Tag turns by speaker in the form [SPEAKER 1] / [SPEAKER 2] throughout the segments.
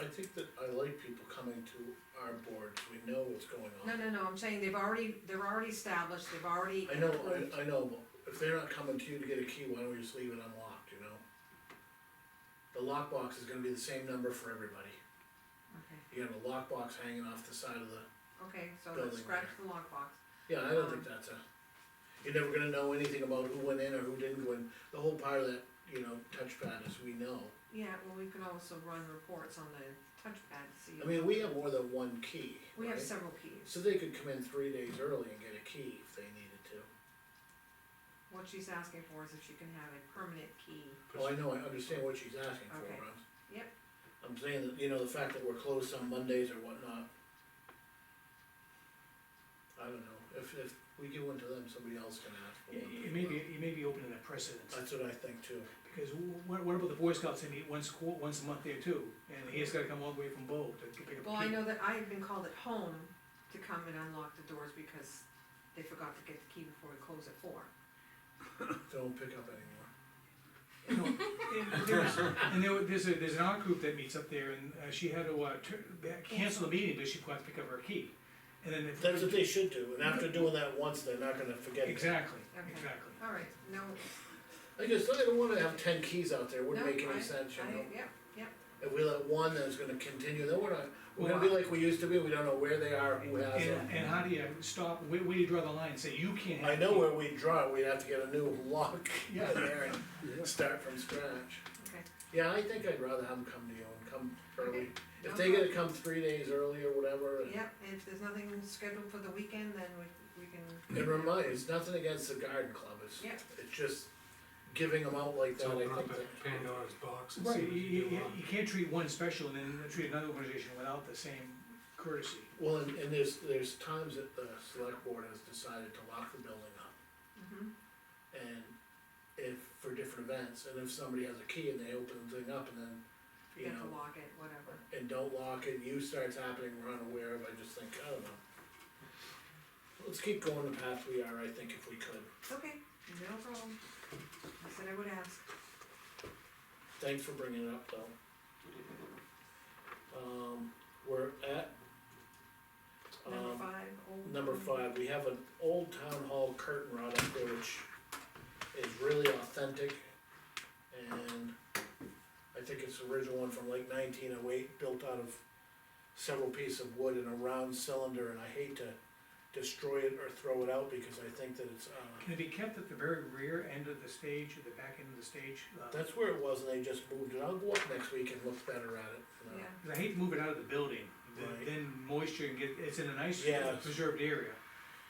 [SPEAKER 1] I think that I like people coming to our boards, we know what's going
[SPEAKER 2] No,
[SPEAKER 1] on.
[SPEAKER 2] no, no, I'm saying they've already, they're already established, they've already.
[SPEAKER 1] I know, I, I know, but if they're not coming to you to get a key, why don't we just leave it unlocked, you know? The lockbox is gonna be the same number for everybody,
[SPEAKER 2] Okay,
[SPEAKER 1] you got a lockbox hanging off the side of the,
[SPEAKER 2] okay, so
[SPEAKER 1] Building
[SPEAKER 2] let's scratch the lockbox.
[SPEAKER 1] yeah, I don't think
[SPEAKER 2] Uh-huh.
[SPEAKER 1] that's a. You're never gonna know anything about who went in or who didn't go in, the whole part of that, you know, touchpad is we know.
[SPEAKER 2] Yeah, well, we can also run reports on the touchpad to
[SPEAKER 1] I
[SPEAKER 2] see.
[SPEAKER 1] mean, we have more than one key,
[SPEAKER 2] We have
[SPEAKER 1] right?
[SPEAKER 2] several keys.
[SPEAKER 1] So they could come in three days early and get a key if they needed to.
[SPEAKER 2] What she's asking for is if she can have a permanent key.
[SPEAKER 1] Oh, I know, I understand what she's asking for,
[SPEAKER 2] Okay.
[SPEAKER 1] Russ.
[SPEAKER 2] Yep.
[SPEAKER 1] I'm saying that, you know, the fact that we're closed on Mondays or whatnot. I don't know, if, if we give one to them, somebody else can ask for
[SPEAKER 3] You,
[SPEAKER 1] one.
[SPEAKER 3] you
[SPEAKER 1] as
[SPEAKER 3] may be,
[SPEAKER 1] well.
[SPEAKER 3] you may be opening a precedent,
[SPEAKER 1] That's what I think too.
[SPEAKER 3] because wh- what, what about the Boy Scouts, they meet once qu- once a month there too, and he's gotta come all the way from Bo to pick up
[SPEAKER 2] Well, I
[SPEAKER 3] a key.
[SPEAKER 2] know that I have been called at home to come and unlock the doors because they forgot to get the key before we close at four.
[SPEAKER 1] Don't pick up anymore.
[SPEAKER 3] No, And there's, and there, was- there's a, there's an art group that meets up there, and uh, she had to, uh, tur- back- cancel the meeting, but she forgot to pick up her key. And then. if-
[SPEAKER 1] That's what they should do, and after doing that once, they're not gonna forget it.
[SPEAKER 3] Exactly,
[SPEAKER 2] Okay.
[SPEAKER 3] exactly.
[SPEAKER 2] All right, no,
[SPEAKER 1] I guess, I don't wanna have ten keys out there, wouldn't
[SPEAKER 2] No,
[SPEAKER 1] make any sense, you
[SPEAKER 2] I,
[SPEAKER 1] know?
[SPEAKER 2] yep, yep,
[SPEAKER 1] If we let one, then it's gonna continue, then we're not, we're gonna be like we used to be, we don't know where they are, who has them.
[SPEAKER 3] And, and how do you stop, where, where do you draw the line, say you can't have.
[SPEAKER 1] I know
[SPEAKER 3] a key?
[SPEAKER 1] where we draw, it, we'd have to get a new lock in
[SPEAKER 3] Yeah.
[SPEAKER 1] there and start from scratch.
[SPEAKER 2] okay.
[SPEAKER 1] Yeah, I think I'd rather have them come to you and come early.
[SPEAKER 2] Okay.
[SPEAKER 1] If
[SPEAKER 2] No
[SPEAKER 1] they get to come three days early or whatever, and-
[SPEAKER 2] Yep, and if there's nothing scheduled for the weekend, then we, we can.
[SPEAKER 1] and remind, it's nothing against the garden club, it's,
[SPEAKER 2] Yeah.
[SPEAKER 1] it's just giving them out like that, I
[SPEAKER 4] Open
[SPEAKER 1] think.
[SPEAKER 4] up a Pandora's box and see
[SPEAKER 3] Right, you,
[SPEAKER 4] what
[SPEAKER 3] you,
[SPEAKER 4] you
[SPEAKER 3] you-
[SPEAKER 4] do on.
[SPEAKER 3] you can't treat one special and then treat another organization without the same courtesy.
[SPEAKER 1] Well, and, and there's, there's times that the select board has decided to lock the building up.
[SPEAKER 2] Mhm.
[SPEAKER 1] and if, for different events, and if somebody has a key and they open the thing up and then, you
[SPEAKER 2] Get to
[SPEAKER 1] know,
[SPEAKER 2] lock it, whatever.
[SPEAKER 1] and don't lock it, use starts happening, we're unaware of, I just think, I don't know. Let's keep going the path we are, I think, if we could.
[SPEAKER 2] Okay, no problem. I said I would ask.
[SPEAKER 1] Thanks for bringing it up, though. Um, we're at.
[SPEAKER 2] Number
[SPEAKER 1] um,
[SPEAKER 2] five, old.
[SPEAKER 1] Number five, we have an old town hall curtain rod up there which is really authentic. And I think it's the original one from like nineteen oh eight, built out of several pieces of wood in a round cylinder. And I hate to destroy it or throw it out because I think that it's, uh,
[SPEAKER 3] Can it be kept at the very rear end of the stage, at the back end of the stage? Uh,
[SPEAKER 1] that's where it was and they just moved it. I'll go up next week and look better at it. you know.
[SPEAKER 2] Yeah,
[SPEAKER 3] 'cause I hate to move it out of the building, then-
[SPEAKER 1] Right.
[SPEAKER 3] then moisture and get, it's in a nice
[SPEAKER 1] Yeah.
[SPEAKER 3] preserved area.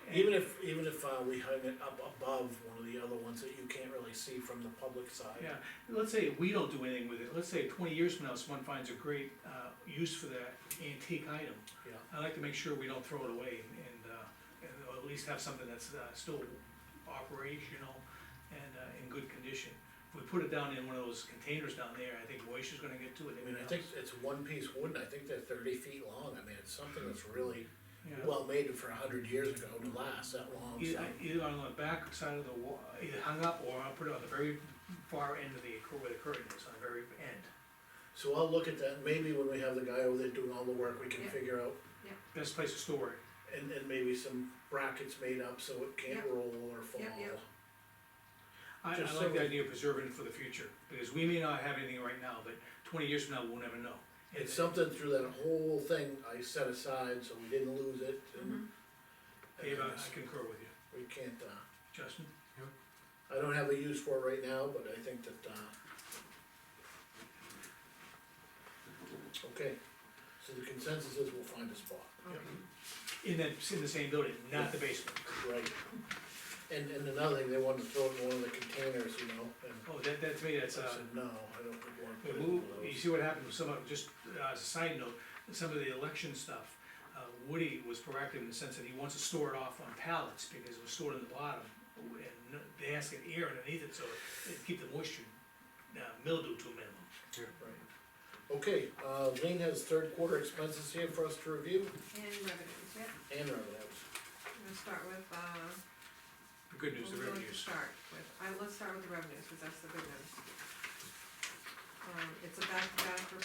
[SPEAKER 3] And-
[SPEAKER 1] Even if, even if, uh, we hung it up above one of the other ones that you can't really see from the public side.
[SPEAKER 3] Yeah, let's say we don't do anything with it, let's say twenty years from now, someone finds a great, uh, use for that antique item.
[SPEAKER 1] Yeah.
[SPEAKER 3] I like to make sure we don't throw it away and, uh, and or at least have something that's, uh, still operational and, uh, in good condition. If we put it down in one of those containers down there, I think moisture's gonna get to it.
[SPEAKER 1] I mean, I
[SPEAKER 3] everything
[SPEAKER 1] think
[SPEAKER 3] else.
[SPEAKER 1] it's one piece wood, and I think they're thirty feet long, I mean, it's something that's really
[SPEAKER 3] Yeah.
[SPEAKER 1] well made for a hundred years ago to last that long, so.
[SPEAKER 3] Either, either on the back side of the wall, either hung up or I'll put it on the very far end of the, cur- where the curtain is, on the very end.
[SPEAKER 1] So I'll look at that, maybe when we have the guy over there doing all the work, we can
[SPEAKER 2] Yeah.
[SPEAKER 1] figure out,
[SPEAKER 3] Best place to store it.
[SPEAKER 1] and, and maybe some brackets made up so it can't
[SPEAKER 2] Yeah.
[SPEAKER 1] roll or fall.
[SPEAKER 2] Yeah, yeah.
[SPEAKER 3] I, I
[SPEAKER 1] Just so
[SPEAKER 3] like the
[SPEAKER 1] we-
[SPEAKER 3] idea of preserving it for the future, because we may not have anything right now, but twenty years from now, we'll never know. And
[SPEAKER 1] It's something through that whole thing I set aside, so we didn't lose it,
[SPEAKER 2] Mm-hmm.
[SPEAKER 1] and.
[SPEAKER 3] Dave, I
[SPEAKER 1] and
[SPEAKER 3] I concur with you.
[SPEAKER 1] We can't, uh,
[SPEAKER 3] Justin?
[SPEAKER 1] I don't have a use for it right now, but I think that, uh. Okay, so the consensus is we'll find a spot.
[SPEAKER 2] okay.
[SPEAKER 3] In that, in the same building, not the basement.
[SPEAKER 1] Right. And, and another thing, they wanted to throw it in one of the containers, you know, and
[SPEAKER 3] Oh, that, that to me,
[SPEAKER 1] I
[SPEAKER 3] that's, uh,
[SPEAKER 1] said, no, I don't think we wanna put it in
[SPEAKER 3] Well,
[SPEAKER 1] one of
[SPEAKER 3] You
[SPEAKER 1] those.
[SPEAKER 3] see what happened with some of, just uh, as a side note, some of the election stuff, uh, Woody was proactive in the sense that he wants to store it off on pallets because it was stored in the bottom. And no- they ask it air underneath it, so it keep the moisture, uh, mildew to a minimum.
[SPEAKER 1] Right. Okay, uh, Lean has third quarter expenses here for us to review,
[SPEAKER 2] And revenues, yep.
[SPEAKER 1] and revenues.
[SPEAKER 2] I'm gonna start with, uh,
[SPEAKER 3] The good
[SPEAKER 2] What
[SPEAKER 3] news, the
[SPEAKER 2] would you like to
[SPEAKER 3] revenues.
[SPEAKER 2] start with? I, let's start with the revenues, cause that's the good news. Um, it's a back-to-back report